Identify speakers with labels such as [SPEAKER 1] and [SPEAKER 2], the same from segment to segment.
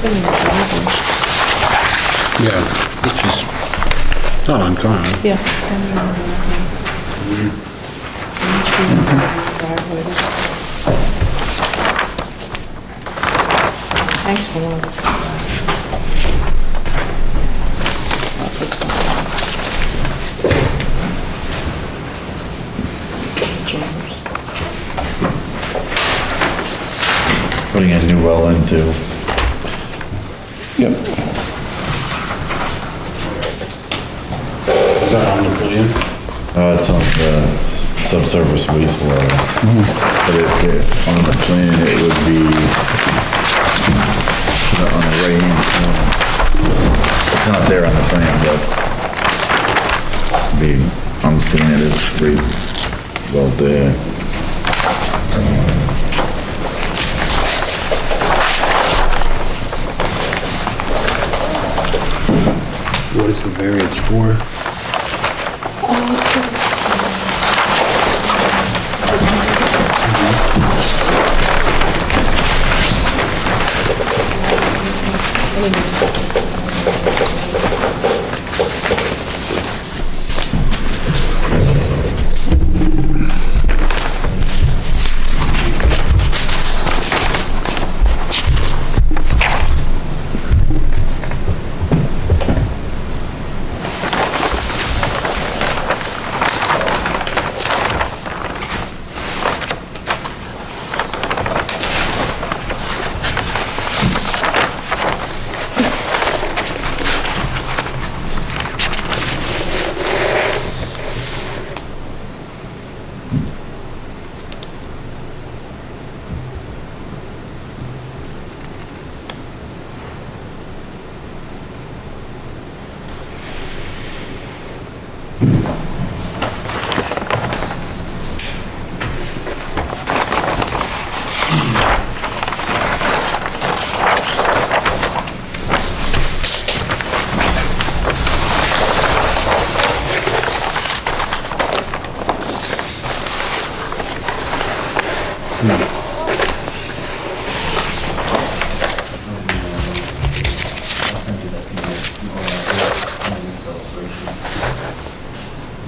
[SPEAKER 1] been in
[SPEAKER 2] Yeah, Oh, which is not uncommon.
[SPEAKER 1] Yeah. it's been in the driveway. Thanks for all. That's what's going on. Chambers.
[SPEAKER 3] putting a new well into.
[SPEAKER 2] Yep. Is that on the plan?
[SPEAKER 3] Uh, it's on the subsurface wastewater.
[SPEAKER 4] Mm-hmm.
[SPEAKER 3] But if, it- on the plan, it would be put on the right-hand corner. It's not there on the plan, but be, I'm seeing it as three, well, there.
[SPEAKER 2] What is the variance for?
[SPEAKER 1] Oh, it's good.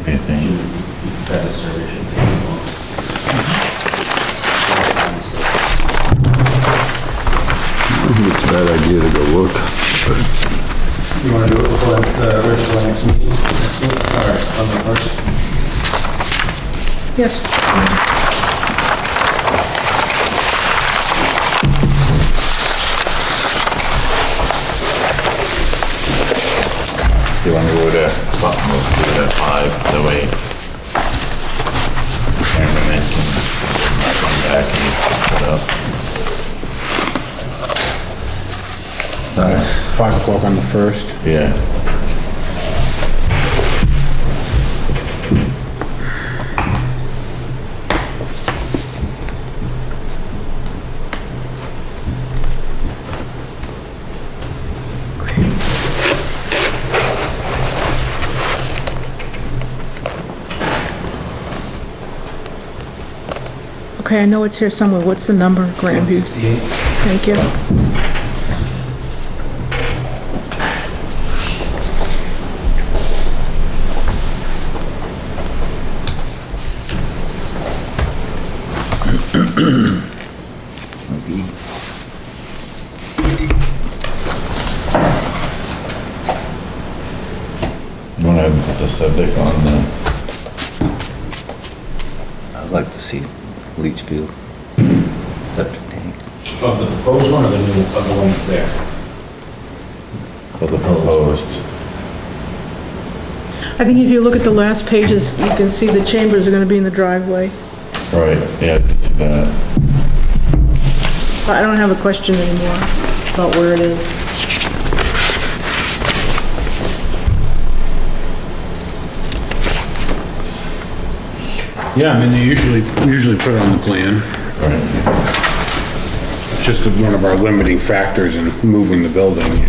[SPEAKER 3] I think.
[SPEAKER 4] It's a bad idea to go look.
[SPEAKER 5] You want to do it before uh, the original next meeting? next week, Or on the first?
[SPEAKER 1] Yes.
[SPEAKER 3] You wanna go to, let's do it at five, that way. Cameraman can come back and put it up.
[SPEAKER 2] Five o'clock on the first.
[SPEAKER 3] Yeah.
[SPEAKER 1] Okay, I know it's here somewhere. What's the number, Grandview?
[SPEAKER 5] 68.
[SPEAKER 1] Thank you.
[SPEAKER 3] You wanna put the subject on the,
[SPEAKER 6] I'd like to see leach field, septic tank.
[SPEAKER 5] Of the proposed one or the new, of the one that's there?
[SPEAKER 3] for the proposed?
[SPEAKER 1] I think if you look at the last pages, you can see the chambers are gonna be in the driveway.
[SPEAKER 3] Right, yeah, it's that.
[SPEAKER 1] But I don't have a question anymore about where it is.
[SPEAKER 2] Yeah, I mean, they usually, usually put it on the plan. Just one of our limiting factors in moving the building